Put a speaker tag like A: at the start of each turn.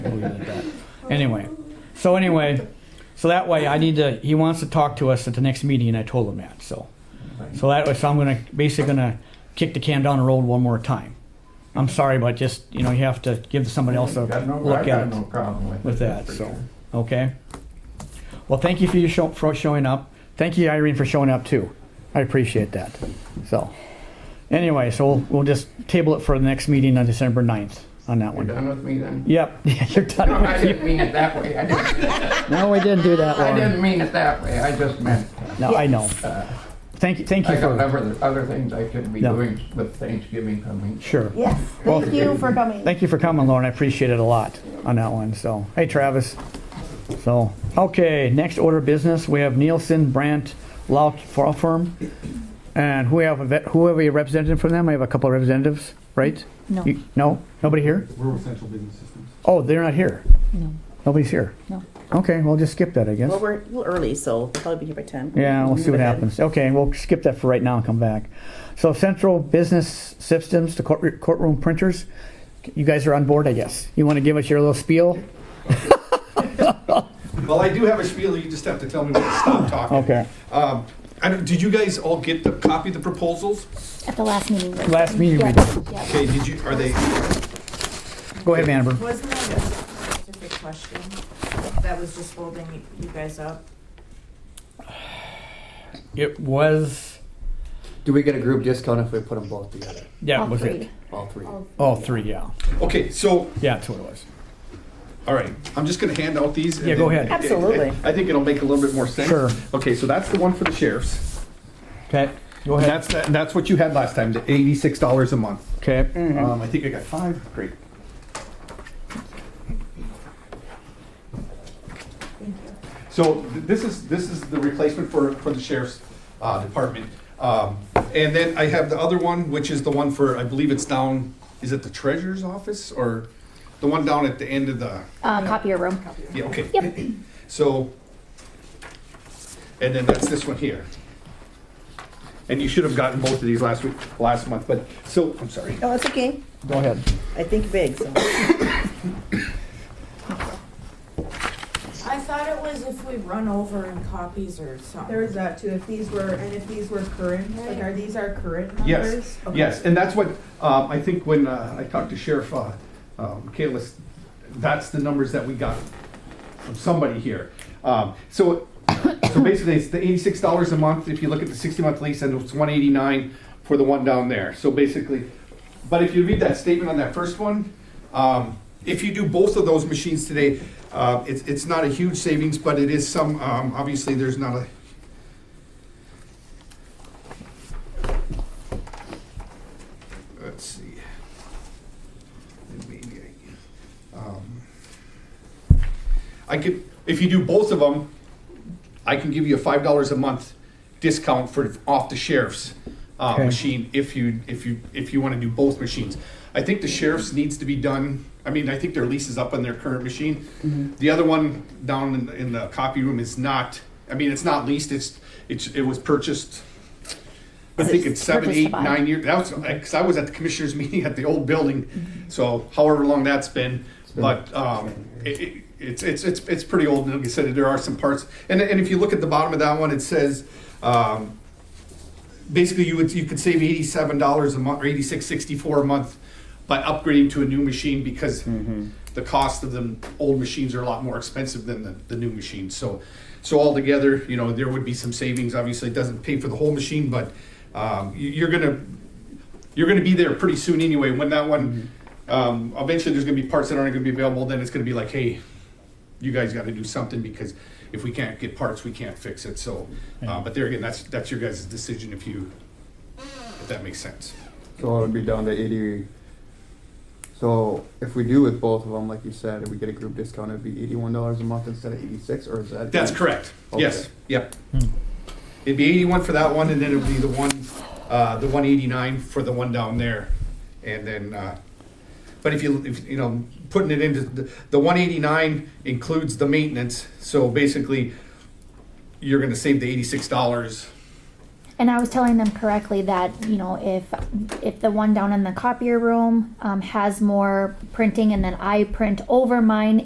A: something like that. Anyway, so anyway, so that way I need to, he wants to talk to us at the next meeting and I told him that, so. So that way, so I'm gonna, basically gonna kick the can down the road one more time. I'm sorry, but just, you know, you have to give somebody else a
B: Got no-
A: look
B: I got
A: at
B: no
A: it,
B: problem with it.
A: with that,
B: that's
A: so.
B: for sure.
A: okay? Well, thank you for your show, for showing up. Thank you Irene for showing up too. I appreciate that, so. Anyway, so we'll, we'll just table it for the next meeting on December 9th on that
B: You're
A: one.
B: done with me then?
A: Yep, you're
B: No,
A: done
B: I
A: with you.
B: didn't mean it that way. I didn't,
A: No, we didn't do that,
B: I
A: Lauren.
B: didn't mean it that way. I just meant, uh,
A: No, I know. Thank you, thank
B: I
A: you
B: got
A: for,
B: other, other things I could be
A: No.
B: doing with Thanksgiving coming.
A: sure.
C: Yes, thank you for coming.
A: Thank you for coming, Lauren. I appreciate it a lot on that one, so. Hey, Travis. So, okay, next order of business, we have Nielsen Brandt Law Law Firm. And who have, a vet- who have a representative from them? I have a couple of representatives, right?
D: No,
A: You- No? Nobody here?
E: Rural Central Business Systems.
A: Oh, they're not here.
D: no.
A: Nobody's here.
D: No.
A: Okay, we'll just skip that, I guess.
F: Well, we're a little early, so we'll probably be here by 10.
A: Yeah, we'll see
F: Move
A: what
F: ahead.
A: happens. Okay, we'll skip that for right now and come back. So Central Business Systems, the court- courtroom printers, you guys are on board, I guess. You want to give us your little spiel?
E: Well, I do have a spiel, you just have to tell me when to stop talking.
A: Okay.
E: Um, I don't, did you guys all get the copy of the proposals?
D: At the last meeting.
A: Last meeting we
D: Yeah,
A: did.
D: yeah.
E: Okay, did you, are they,
A: Go ahead, Vandenberg.
G: Wasn't that a specific question that was just holding you- you guys up?
A: It was,
H: Do we get a group discount if we put them both together?
A: yeah,
D: All
A: was
D: three.
A: it?
H: All three?
A: All three, yeah.
E: okay, so,
A: Yeah, that's what it was.
E: all right, I'm just gonna hand out these. and
A: Yeah, go
E: then-
A: ahead.
F: Absolutely.
E: I think it'll make a little bit more sense.
A: Sure.
E: Okay, so that's the one for the sheriffs.
A: Okay, go
E: And
A: ahead.
E: that's, that's what you had last time, the eighty-six dollars a month.
A: Okay,
E: Um, I think I got five, great. So th- this is, this is the replacement for, for the sheriff's, uh, department. Um, and then I have the other one, which is the one for, I believe it's down, is it the treasurer's office or the one down at the end of the,
D: Uh, copier room.
E: yeah, okay.
D: Yep.
E: So, and then that's this one here. And you should have gotten both of these last week, last month, but, so, I'm sorry.
F: Oh, it's okay.
A: go ahead.
F: I think big, so.
G: I thought it was if we run over in copies or something.
I: There is that too, if these were, and if these were current, like are these our current numbers?
E: Yes,
I: Okay.
E: yes, and that's what, um, I think when uh, I talked to Sheriff uh, um, Kalis, that's the numbers that we got from somebody here. Um, So, so basically, it's the eighty-six dollars a month, if you look at the sixty-month lease, and it's one eighty-nine for the one down there. So basically, but if you read that statement on that first one, um, if you do both of those machines today, uh, it's, it's not a huge savings, but it is some, um, obviously, there's not a, let's see. Maybe I- um, I could, if you do both of them, I can give you a five dollars a month discount for off the sheriff's uh,
A: Okay.
E: machine if you if you if you want to do both machines. I think the sheriff's needs to be done. I mean, I think their lease is up on their current machine. The other one down in, in the copy room is not. I mean, it's not leased. It's it's it was purchased. I think it's seven,
D: Purchased
E: eight,
D: by.
E: nine years. That was because I was at the commissioners' meeting at the old building, so however long that's been. But um, it, it, it's it's it's it's pretty old. And like I said, there are some parts, and and if you look at the bottom of that one, it says. Um, basically you would you could save eighty seven dollars a month or eighty six sixty four a month by upgrading to a new machine because the cost of the old machines are a lot more expensive than the, the new machines. So so altogether, you know, there would be some savings. Obviously, it doesn't pay for the whole machine, but um, you, you're gonna you're gonna be there pretty soon anyway. When that one um, eventually, there's gonna be parts that aren't gonna be available. Then it's gonna be like, hey, you guys got to do something because if we can't get parts, we can't fix it. So, uh, but there again, that's, that's your guys' decision if you, if that makes sense.
H: So it would be down to eighty. So if we do with both of them, like you said, if we get a group discount, it'd be eighty-one dollars a month instead of eighty-six, or is that?
E: That's correct. Yes,
H: Okay.
E: yep. It'd be eighty-one for that one and then it'd be the one, uh, the one eighty-nine for the one down there. And then, uh, but if you, if, you know, putting it into, the, the one eighty-nine includes the maintenance. So basically, you're gonna save the eighty-six dollars
D: And I was telling them correctly that, you know, if, if the one down in the copier room, um, has more printing and then I print over mine